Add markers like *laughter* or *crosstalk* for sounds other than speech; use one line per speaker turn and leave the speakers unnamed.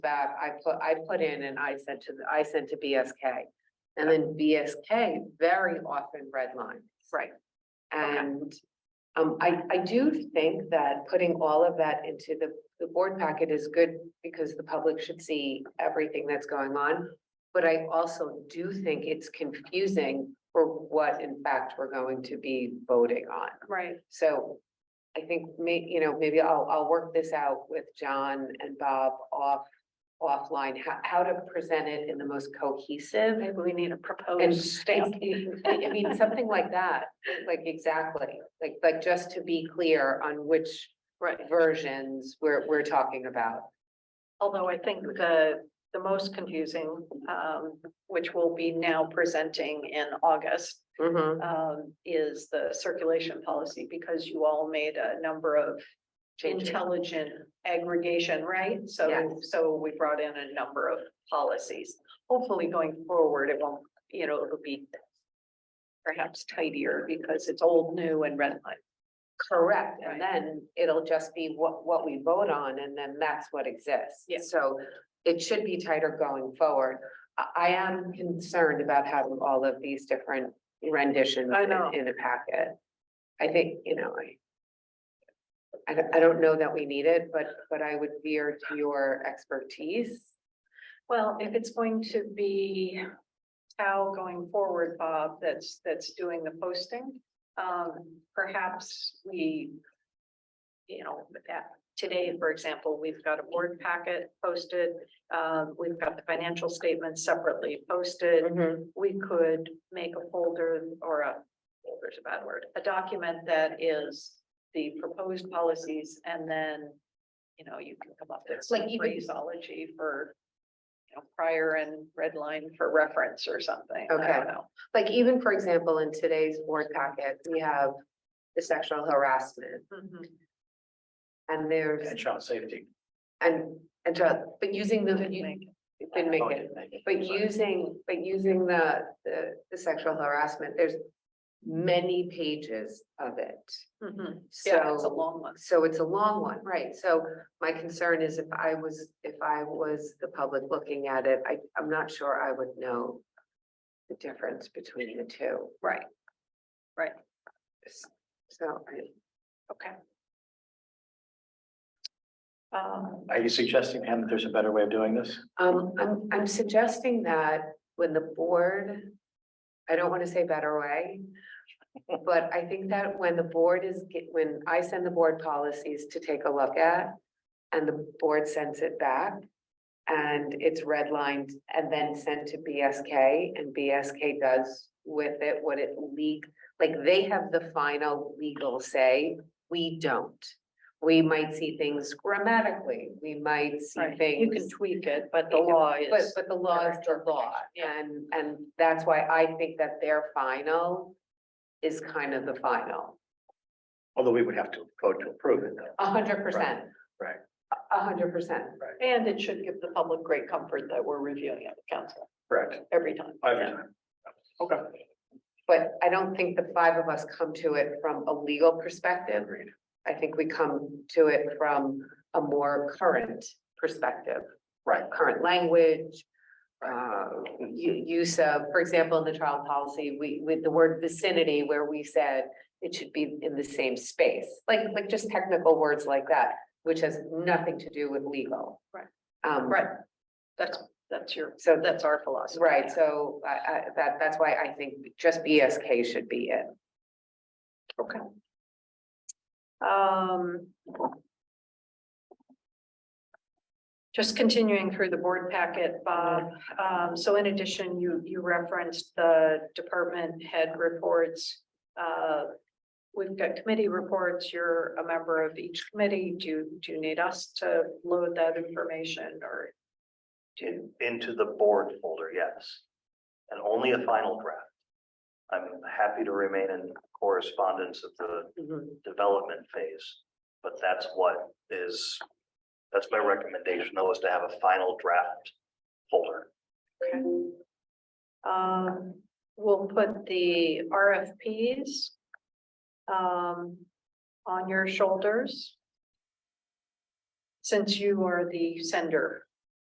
that I put, I put in and I sent to, the- I sent to BSK. And then BSK very often redlined.
Right.
And um, I, I do think that putting all of that into the, the board packet is good because the public should see everything that's going on. But I also do think it's confusing for what in fact we're going to be voting on.
Right.
So I think may, you know, maybe I'll, I'll work this out with John and Bob off, offline, how, how to present it in the most cohesive.
Maybe we need a
And
proposed stamp.
think- *laughs* I mean, something like that, like exactly, like, like just to be clear on which
Right.
versions we're, we're talking about.
Although I think the, the most confusing, um, which we'll be now presenting in August, um, is the circulation policy because you all made a number of
Changes.
intelligent aggregation, right? So,
Yes.
so we brought in a number of policies. Hopefully going forward, it won't, you know, it'll be perhaps tidier because it's old, new and red line.
Correct,
Right.
and then it'll just be what, what we vote on, and then that's what exists.
Yeah.
So it should be tighter going forward. I, I am concerned about having all of these different renditions
I
in-
know.
in a packet. I think, you know, I I don't, I don't know that we need it, but, but I would veer to your expertise.
Well, if it's going to be Tao going forward, Bob, that's, that's doing the posting, um, perhaps we, you know, with that, today, for example, we've got a board packet posted, um, we've got the financial statements separately posted. We could make a folder or a, folder's a bad word, a document that is the proposed policies and then, you know, you can come up with
Like
some
even-
phraseology for you know, prior and red line for reference or something. I
Okay.
don't know.
Like even, for example, in today's board packet, we have the sexual harassment,
Mm-hmm.
and there's
And child safety.
And, and to, but using the,
Couldn't
you
make it.
can make
Oh,
it,
didn't make it.
but
Sorry.
using, but using the, the, the sexual harassment, there's many pages of it.
Mhm. Yeah, it's a
So,
long one.
so it's a long one, right? So my concern is if I was, if I was the public looking at it, I, I'm not sure I would know the difference between the two.
Right. Right.
So, I-
Okay. Um,
Are you suggesting, Pam, that there's a better way of doing this?
Um, I'm, I'm suggesting that when the board, I don't want to say better way. But I think that when the board is, ge- when I send the board policies to take a look at and the board sends it back. And it's redlined and then sent to BSK and BSK does with it what it leak, like they have the final legal say, we don't. We might see things grammatically, we might see
right.
things.
You can tweak it, but the
You can-
law
But,
is,
but the law is the law, and, and that's why I think that their final is kind of the final,
Although we would have to vote to approve it though.
a hundred percent.
Right,
A hundred percent,
and it should give the public great comfort that we're reviewing it, council,
correct.
every time.
Every
Yeah.
time. Okay.
but I don't think the five of us come to it from a legal perspective.
Agreed.
I think we come to it from a more current perspective.
Right.
Current language, uh, u- use of, for example, in the child policy, we, with the word vicinity, where we said it should be in the same space, like, like just technical words like that, which has nothing to do with legal.
Right.
Um,
Right, that's, that's your,
so that's,
that's our philosophy.
right, so I, I, that, that's why I think just BSK should be it.
Okay. Um. Just continuing through the board packet, Bob, um, so in addition, you, you referenced the department head reports. Uh, we've got committee reports, you're a member of each committee, do, you- do you need us to load that information or? Do,
into the board folder, yes. And only a final draft. I'm happy to remain in correspondence at the development phase, but that's what is, that's my recommendation, though, is to have a final draft folder.
okay. Um, we'll put the RFPs. Um, on your shoulders. Since you are the sender